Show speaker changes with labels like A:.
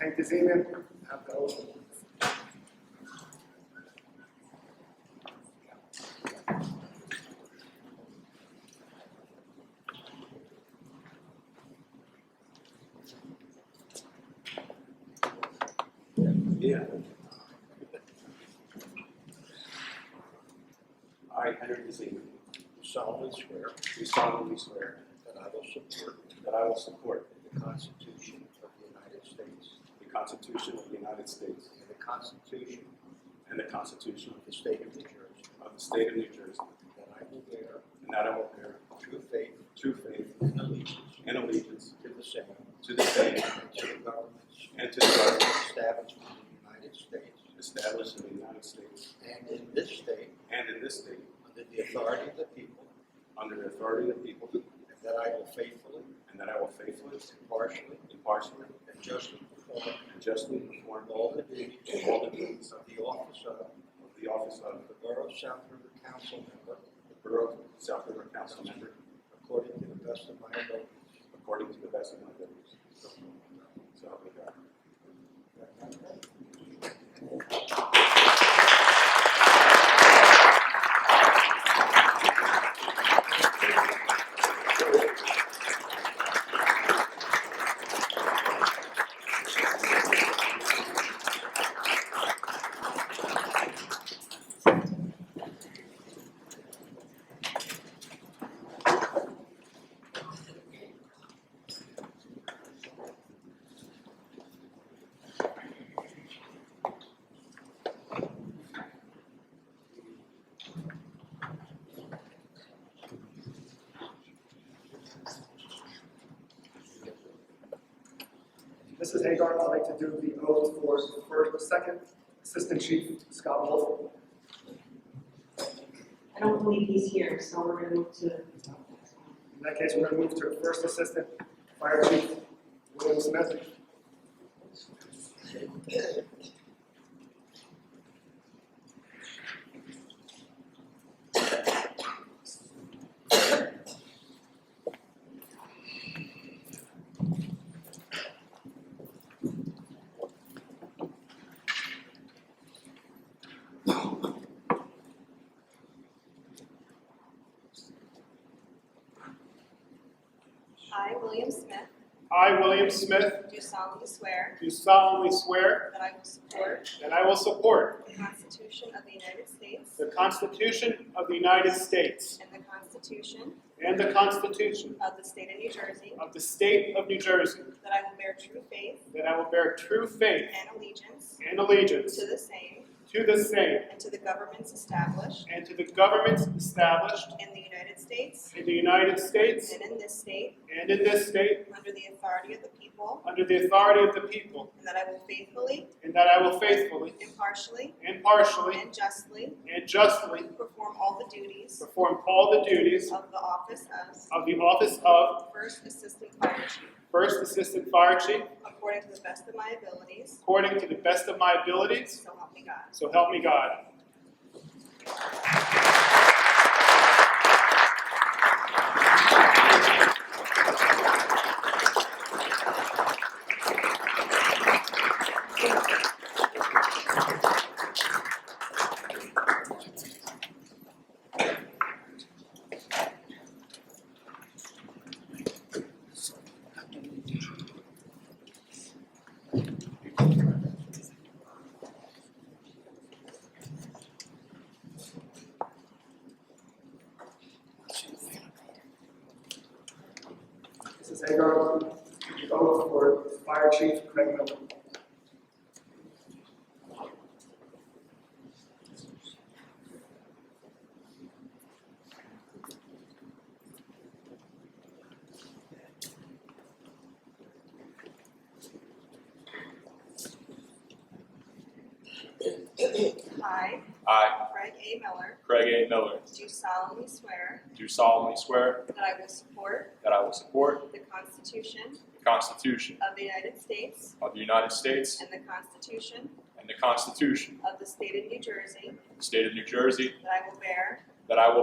A: Take this evening, have the oath.
B: Yeah. I, Henry Dezeman,
C: do solemnly swear
B: do solemnly swear
C: that I will support
B: that I will support
C: the Constitution of the United States
B: the Constitution of the United States
C: and the Constitution
B: and the Constitution
C: of the State of New Jersey,
B: of the State of New Jersey,
C: that I will bear
B: and that I will bear
C: true faith
B: true faith
C: and allegiance
B: and allegiance
C: to the same
B: to the same
C: and to the governments
B: and to the government
C: established
B: established in
C: in the United States
B: the United States
C: and in this state
B: and in this state
C: under the authority of the people,
B: under the authority of the people,
C: and that I will faithfully,
B: and that I will faithfully,
C: impartially,
B: impartially,
C: and justly perform
B: and justly perform all
C: all the duties
B: all the duties
C: of the office of
B: of the office of
C: the Borough South River Council member
B: the Borough of South River Council member
C: according to the best of my ability.
B: according to the best of my abilities.
C: So help me God.
B: So help me God.
A: Mrs. Hagar, I'd like to do the oath for first, second Assistant Chief Scott Wolf.
D: I don't believe he's here, so we're gonna move to.
A: In that case, we're gonna move to First Assistant Fire Chief William Smith.
E: I, William Smith,
F: I, William Smith,
E: do solemnly swear
F: do solemnly swear
E: that I will support
F: that I will support
E: the Constitution of the United States
F: the Constitution of the United States
E: and the Constitution
F: and the Constitution
E: of the State of New Jersey,
F: of the State of New Jersey,
E: that I will bear true faith
F: that I will bear true faith
E: and allegiance
F: and allegiance
E: to the same
F: to the same
E: and to the governments established
F: and to the governments established
E: in the United States
F: in the United States
E: and in this state
F: and in this state
E: under the authority of the people,
F: under the authority of the people,
E: and that I will faithfully,
F: and that I will faithfully,
E: impartially,
F: impartially,
E: and justly
F: and justly
E: perform all the duties
F: perform all the duties
E: of the office of
F: of the office of
E: First Assistant Fire Chief
F: First Assistant Fire Chief
E: according to the best of my abilities,
F: according to the best of my abilities.
E: so help me God.
F: So help me God.
A: Mrs. Hagar, the oath for Fire Chief Craig Miller.
E: I,
G: I,
E: Craig A. Miller,
G: Craig A. Miller,
E: do solemnly swear
G: do solemnly swear
E: that I will support
G: that I will support
E: the Constitution
G: the Constitution
E: of the United States
G: of the United States
E: and the Constitution
G: and the Constitution
E: of the State of New Jersey,
G: of the State of New Jersey,
E: that I will bear
G: that I will